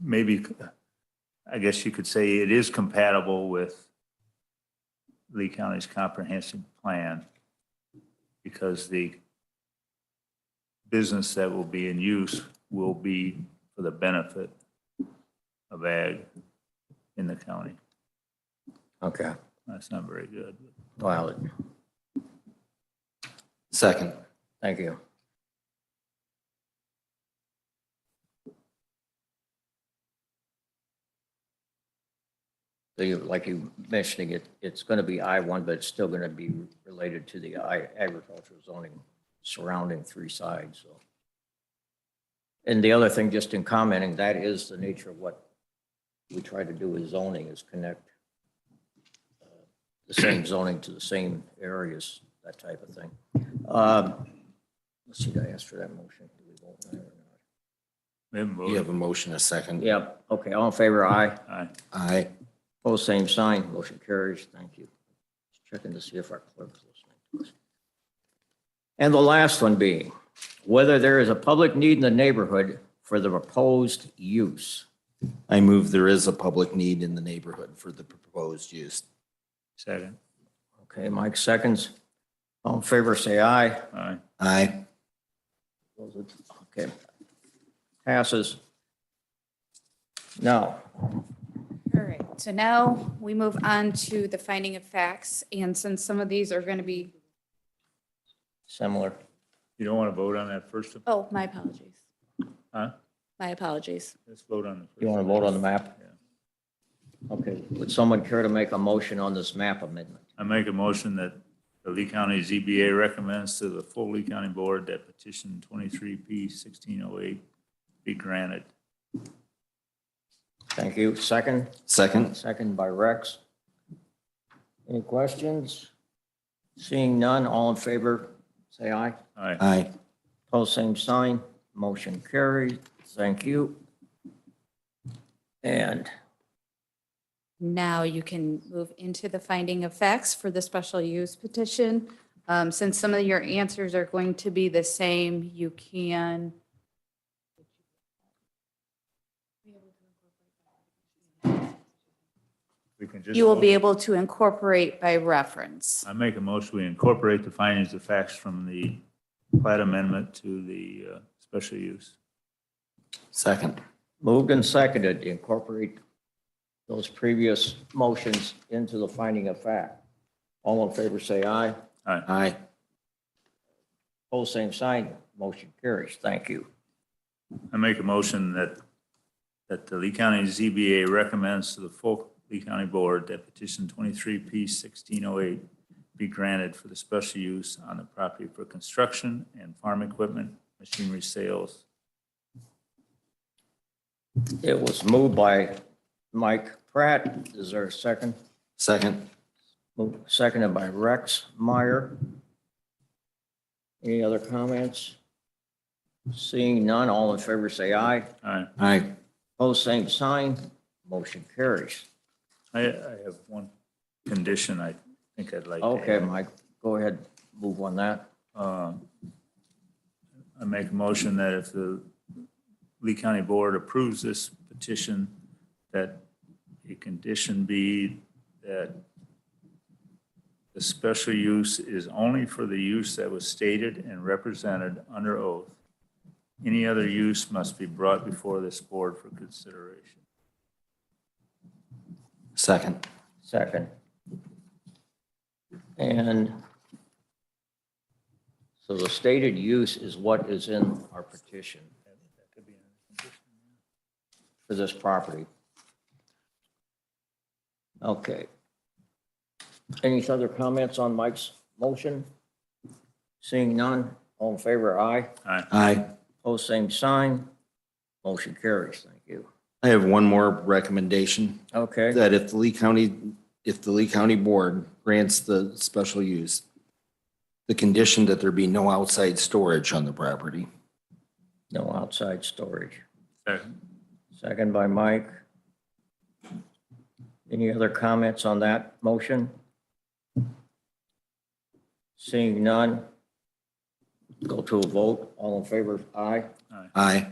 maybe, I guess you could say it is compatible with Lee County's comprehensive plan because the business that will be in use will be for the benefit of ag in the county. Okay, That's not very good. well, Second. thank you. So you, like you mentioning it, it's going to be I one, but it's still going to be related to the I agricultural zoning surrounding three sides, so. And the other thing, just in commenting, that is the nature of what we try to do with zoning is connect uh, the same zoning to the same areas, that type of thing. Um, Let's see, did I ask for that motion? Do we vote on it or We haven't voted. You have a motion, a second. not? Yep, okay, all in favor, aye. Aye. Aye. Pose same sign, motion carries, thank you. Just Checking to see if our clerk's listening to us. And the last one being, whether there is a public need in the neighborhood for the proposed use. I move there is a public need in the neighborhood for the proposed use. Second. Okay, Mike seconds. All in favor, say aye. Aye. Aye. Those are- Okay. Passes. Now, All right, so now we move on to the finding of facts, and since some of these are going to be, similar, You don't want to vote on that first, oh, my apologies, huh? my apologies. Let's vote on the first. you want to vote on the map? Yeah. Okay, would someone care to make a motion on this map amendment? I make a motion that the Lee County ZBA recommends to the full Lee County Board that petition twenty-three P sixteen oh eight be granted. Thank you. Second? Second. Second by Rex. Any questions? Seeing none, all in favor, say aye. Aye. Aye. Pose same sign, motion carried. Thank you. And Now you can move into the finding of facts for the special use petition. Um, Since some of your answers are going to be the same, you can. We can just You will vote. be able to incorporate by reference. I make a motion, we incorporate the findings of facts from the plat amendment to the uh, special use. Second. moved and seconded to incorporate those previous motions into the finding of fact. All in favor, say aye. Aye. Aye. Pose same sign, motion carries. Thank you. I make a motion that, that the Lee County ZBA recommends to the full Lee County Board that petition twenty-three P sixteen oh eight be granted for the special use on the property for construction and farm equipment, machinery sales. It was moved by Mike Pratt. Is there a second? Second. Moved- Seconded by Rex Meyer. Any other comments? Seeing none, all in favor say aye. Aye. Aye. Opposed, same sign. Motion carries. I, I have one condition I think I'd like to Okay, add. Mike, go ahead, move on that. Um, I make a motion that if the Lee County Board approves this petition, that a condition be that the special use is only for the use that was stated and represented under oath. Any other use must be brought before this board for consideration. Second. Second. And so the stated use is what is in our petition for this property. Okay. Any other comments on Mike's motion? Seeing none, all in favor, aye. Aye. Aye. Pose same sign. Motion carries. Thank you. I have one more recommendation. Okay. that if the Lee County, if the Lee County Board grants the special use, the condition that there be no outside storage on the property. No outside storage. Second. Second by Mike. Any other comments on that motion? Seeing none, go to a vote. All in favor, aye. Aye.